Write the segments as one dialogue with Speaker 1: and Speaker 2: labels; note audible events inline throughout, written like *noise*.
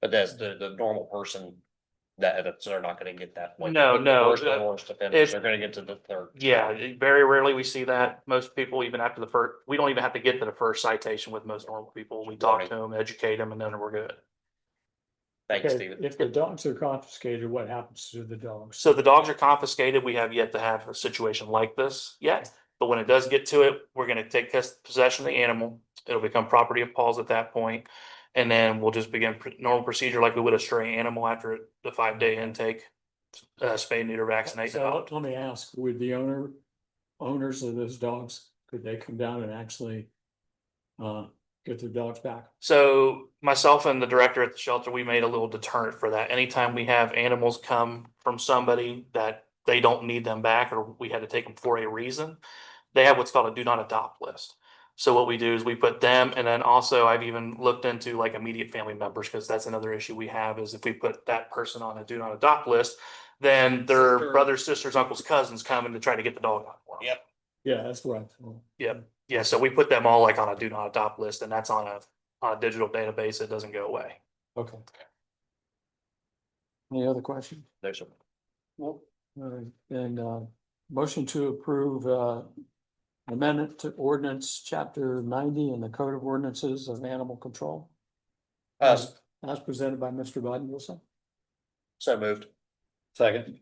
Speaker 1: But that's the, the normal person that, that's- they're not gonna get that. like,
Speaker 2: No, no,
Speaker 1: First and
Speaker 2: uh,
Speaker 1: worst offender,
Speaker 2: it's-
Speaker 1: they're gonna get to the third.
Speaker 2: Yeah, very rarely we see that. Most people, even after the first, we don't even have to get to the first citation with most normal people. We talk to them, educate them, and then we're good.
Speaker 1: Thanks,
Speaker 3: Okay,
Speaker 1: Steven.
Speaker 3: If the dogs are confiscated, what happens to the dogs?
Speaker 2: So the dogs are confiscated. We have yet to have a situation like this yet. But when it does get to it, we're gonna take pos- possession of the animal. It'll become property of Paul's at that point, And then we'll just begin pr- normal procedure like we would a stray animal after the five day intake. Uh, spay, neuter, vaccinate.
Speaker 3: So
Speaker 2: adopt.
Speaker 3: let me ask, would the owner, owners of those dogs, could they come down and actually uh, get their dogs back?
Speaker 2: So myself and the director at the shelter, we made a little deterrent for that. Anytime we have animals come from somebody that they don't need them back or we had to take them for a reason, they have what's called a do not adopt list. So what we do is we put them and then also I've even looked into like immediate family members because that's another issue we have is if we put that person on a do not adopt list, then
Speaker 1: Sister.
Speaker 2: their brothers, sisters, uncles, cousins come in to try to get the dog out. for 'em.
Speaker 1: Yep.
Speaker 3: Yeah, that's what I thought.
Speaker 2: Yeah, so we put them all like on a do not adopt list and that's on a, on a digital database that doesn't go away.
Speaker 3: Okay. Any other questions?
Speaker 1: There's a
Speaker 3: All right, And uh, motion to approve uh, amendment to ordinance chapter ninety in the code of ordinances of animal control.
Speaker 1: Uh,
Speaker 3: As as presented by Mr. Biden Wilson.
Speaker 1: so moved.
Speaker 3: Second.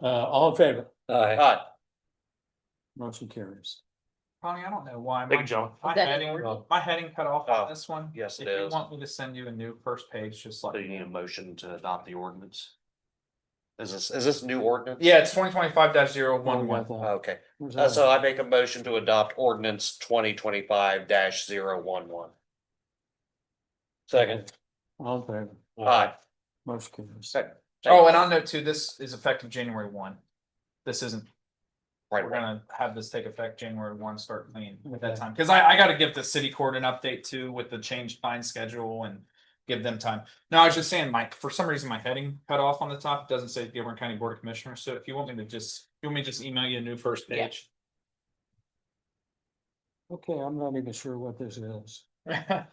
Speaker 3: Uh, all in favor?
Speaker 1: Aye.
Speaker 3: Motion carries.
Speaker 4: Connie, I don't know why.
Speaker 2: Big
Speaker 4: my-
Speaker 2: jump.
Speaker 4: My
Speaker 5: That-
Speaker 4: heading, my heading cut off
Speaker 1: Oh,
Speaker 4: on this one.
Speaker 1: yes, it
Speaker 4: If you
Speaker 1: is.
Speaker 4: want me to send you a new first page, just
Speaker 1: So
Speaker 4: like.
Speaker 1: you need a motion to adopt the ordinance? Is this, is this new ordinance?
Speaker 4: Yeah, it's twenty twenty-five dash zero
Speaker 3: One
Speaker 4: one one.
Speaker 1: Okay,
Speaker 3: Where's
Speaker 1: Uh,
Speaker 3: that?
Speaker 1: so I make a motion to adopt ordinance twenty twenty-five 11 Second.
Speaker 3: All in favor?
Speaker 1: Aye.
Speaker 3: Motion carries.
Speaker 4: Second. Oh, and on note two, this is effective January one. This isn't,
Speaker 1: Right,
Speaker 4: we're
Speaker 1: right.
Speaker 4: gonna have this take effect January one, start clean at that
Speaker 3: Okay.
Speaker 4: time. Cause I, I gotta give the city court an update too with the changed fine schedule and give them time. No, I was just saying, Mike, for some reason, my heading cut off on the top It doesn't say Dearborn County Board of Commissioners. So if you want me to just, you want me to just email you a new first
Speaker 5: Yeah.
Speaker 4: page?
Speaker 3: Okay, I'm not even sure what this is.
Speaker 5: *laughs*
Speaker 6: I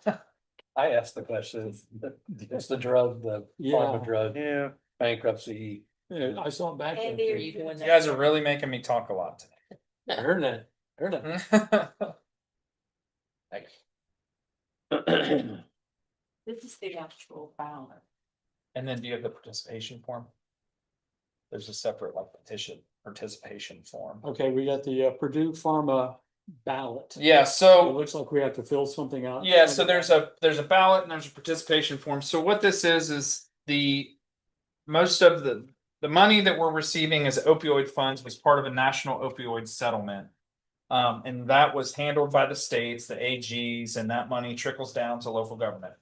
Speaker 6: asked the question, *laughs* it's the- it's the drug, the
Speaker 3: Yeah.
Speaker 6: pharma drug
Speaker 1: Yeah.
Speaker 6: bankruptcy.
Speaker 3: Yeah, Uh, I saw it back. there.
Speaker 5: Andy, are you doing
Speaker 4: You
Speaker 5: that?
Speaker 4: guys are really making me talk a lot
Speaker 3: I heard that, heard
Speaker 1: Mm-hmm.
Speaker 3: that.
Speaker 4: today. *laughs*
Speaker 1: Thanks.
Speaker 5: This is the actual ballot.
Speaker 4: And then do you have the participation form? There's a separate like petition participation form.
Speaker 3: Okay, we got the uh, Purdue Pharma ballot.
Speaker 4: Yeah,
Speaker 3: It
Speaker 4: so,
Speaker 3: looks like we have to fill something out.
Speaker 4: yeah, so there's a, there's a ballot and there's a participation form. So what this is, is the. Most of the, the money that we're receiving as opioid funds was part of a national opioid settlement. Um, and that was handled by the states, the AGs, and that money trickles down to local government.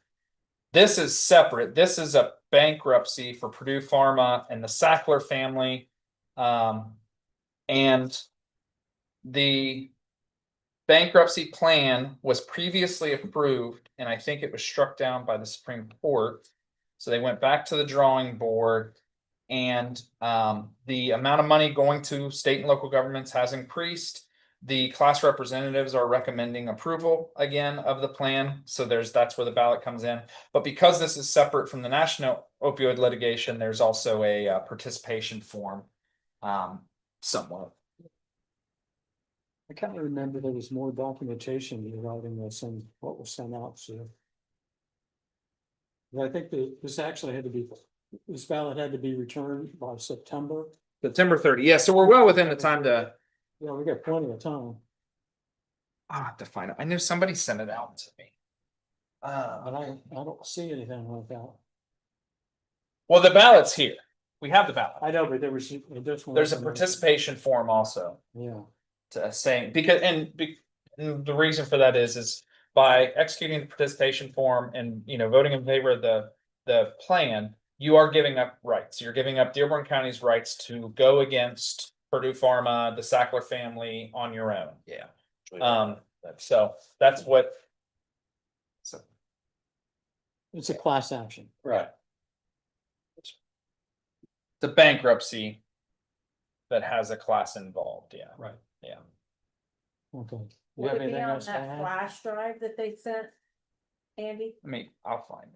Speaker 4: This is separate. This is a bankruptcy for Purdue Pharma and the Sackler family. Um, and the bankruptcy plan was previously approved, and I think it was struck down by the Supreme Court. So they went back to the drawing board. And um, the amount of money going to state and local governments has increased. The class representatives are recommending approval again of the plan. So there's, that's where the ballot comes in. But because this is separate from the national opioid litigation, there's also a uh, participation form. Um, somewhat.
Speaker 3: I can't remember there was more documentation regarding this and what was sent out, so. But I think that this actually had to be, this ballot had to be returned by September.
Speaker 4: September thirty, yeah, so we're well within the time to,
Speaker 3: Yeah, we got plenty of time,
Speaker 4: I have to find it, I knew somebody sent it out to me.
Speaker 3: but
Speaker 4: Uh,
Speaker 3: I, I don't see anything like that.
Speaker 4: well, the ballot's here, we have the ballot,
Speaker 3: I know, but there was. There's
Speaker 4: there's a participation form also.
Speaker 3: Yeah.
Speaker 4: to saying, because, and be, and the reason for that is, is by executing the participation form and, you know, voting in favor of the, the plan, you are giving up rights. You're giving up Dearborn County's rights to go against Purdue Pharma, the Sackler family on your own. Yeah. Um, so that's what. So,
Speaker 3: It's a class action.
Speaker 4: right. The bankruptcy that has a class involved, yeah.
Speaker 3: Right.
Speaker 4: Yeah.
Speaker 3: Okay. You
Speaker 5: Would
Speaker 3: have
Speaker 5: it be
Speaker 3: anything
Speaker 5: on
Speaker 3: else to
Speaker 5: that
Speaker 3: add?
Speaker 5: flash drive that they sent? Andy?
Speaker 4: I mean, I'll find it.